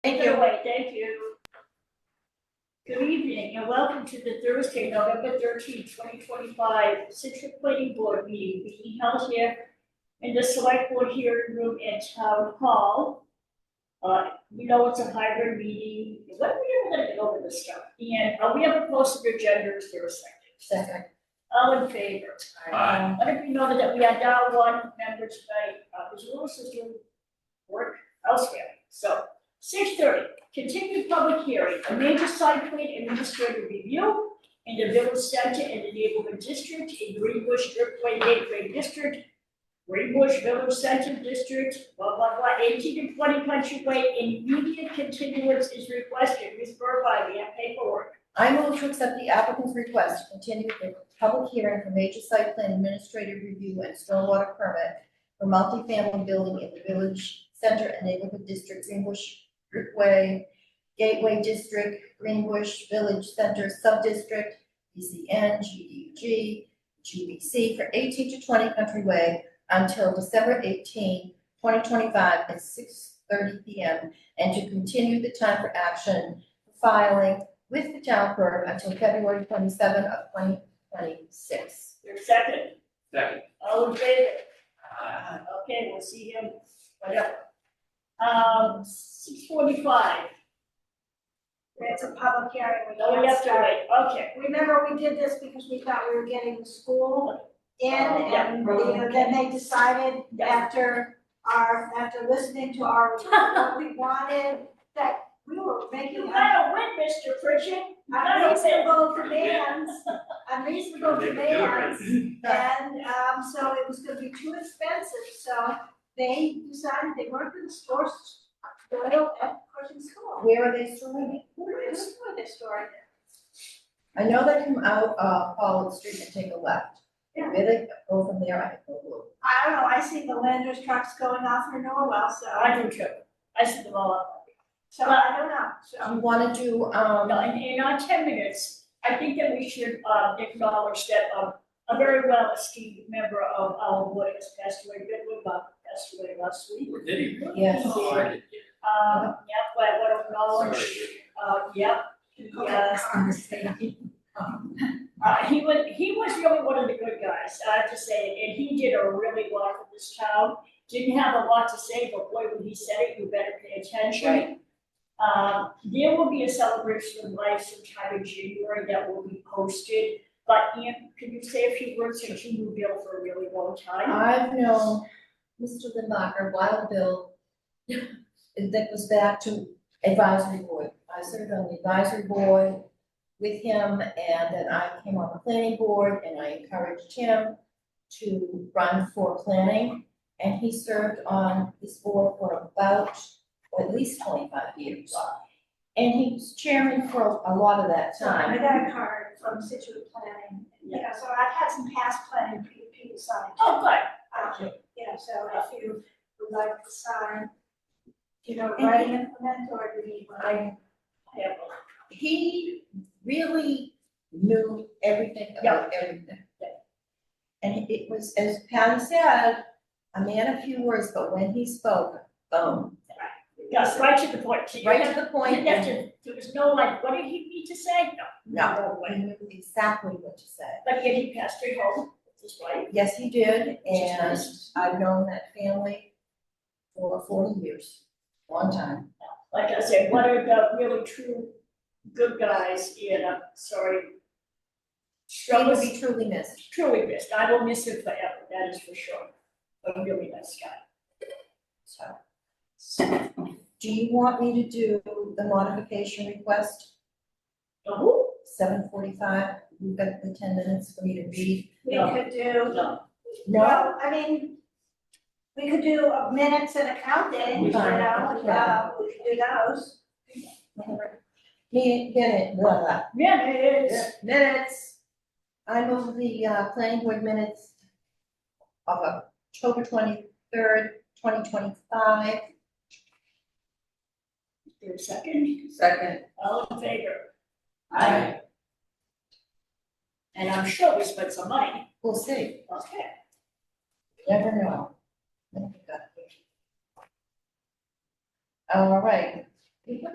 Take it away, thank you. Good evening and welcome to the Thursday, November thirteenth, twenty twenty-five Citrus Planning Board meeting being held here in the select board hearing room at Town Hall. Uh, we know it's a hybrid meeting, when are we ever gonna get over this stuff? And uh, we have a posted agenda, is there a second? Second. All in favor? Aye. Let it be noted that we are down one member tonight, uh, whose little sister work elsewhere. So, six thirty, continued public hearing, a major site plan and administrative review in the village center and the neighborhood district in Greenbush Driftway Gateway District, Greenbush Village Center District, blah, blah, blah, eighteen and twenty Country Way, immediate continuance is requested. Ms. Burbine, we have paperwork. I move to accept the applicant's request to continue the public hearing for major site plan administrative review and stormwater permit for multifamily building in the village center and neighborhood district, Greenbush Way, Gateway District, Greenbush Village Center Subdistrict, BCN, GDG, GBC for eighteen to twenty Country Way until December 18, 2025, at six thirty P M. And to continue the time for action filing with the town clerk until February twenty-seven of twenty twenty-six. Your second, Second. all in favor? Aye. Uh, Okay, we'll see him, whatever. Um, six forty-five, It's a public hearing, we no, Oh, we can't have to start. wait, okay. Remember, we did this because we thought we were getting the school in, Oh, Yeah. and the- then they decided Yeah. after our, after listening to our, what we wanted, that we were You making gotta win, Mr. Pritchett. unreasonable demands, unreasonable They were doing demands. And, um, so it was gonna be too expensive, so they decided they weren't gonna store s- oil at Cushing School. Where are they storing it? Who is, who are they storing it? I know they come out, uh, Pollock Street and take a left. Yeah. Where they go from there, I don't know. I don't know, I see the Landers trucks going off in Norwell, so, I do too, I see them all up. so I don't know, so. Do you wanna do, um, No, in, in our ten minutes, I think that we should, uh, acknowledge that, um, a very well esteemed member of our board has passed away, Good Bob passed away last week. Or did he? Yes. Oh, I didn't get it. Um, yeah, but I want to acknowledge, Sorry. uh, yeah, yes, Uh, he was, he was really one of the good guys, I have to say, and he did a really lot for this town. Didn't have a lot to say, but boy, when he said it, you better pay attention. Uh, there will be a celebration of life sometime in January that will be posted, but Ian, can you say a few words since you moved here for a really long time? I've known Mr. Lindbacher, Wild Bill, that was back to advisory board. I served on the advisory board with him, and then I came on the planning board, and I encouraged him to run for planning, and he served on this board for about, or at least twenty-five years. And he was chairman for a lot of that So I time. got a card from Situate Planning, you know, so I've had some past planning pe- people sign. Oh, good, Um, You know, so if you would like to sign, you know, write an implement or you need one. yeah, he really knew everything about everything. And it was, as Patty said, a man of few words, but when he spoke, boom, yes, right to the point, so you right have- to the you point. didn't have to, there was no like, what did he need to say? No, No, no way. he knew exactly what to say. But yet he passed it home, which is why. Yes, he did, is and nice. I've known that family for forty years, long time. like I said, what are the really true good guys, and I'm sorry. He will Struggles be truly missed. truly missed, I will miss him forever, that is for sure, a really nice guy. So, Do you want me to do the modification request? the who? seven forty-five, we've got the ten minutes for me to read. We No. could do, No, well, I mean, we could do a minutes and accounting, you know, Fine. uh, we could do those. Me, minute, blah, blah. yeah, it is. Minutes. I move the, uh, planning board minutes of October twenty-third, twenty twenty-five. Your second, Second. all in favor? Aye. And I'm sure we spent some money, We'll see, okay. never know. All right,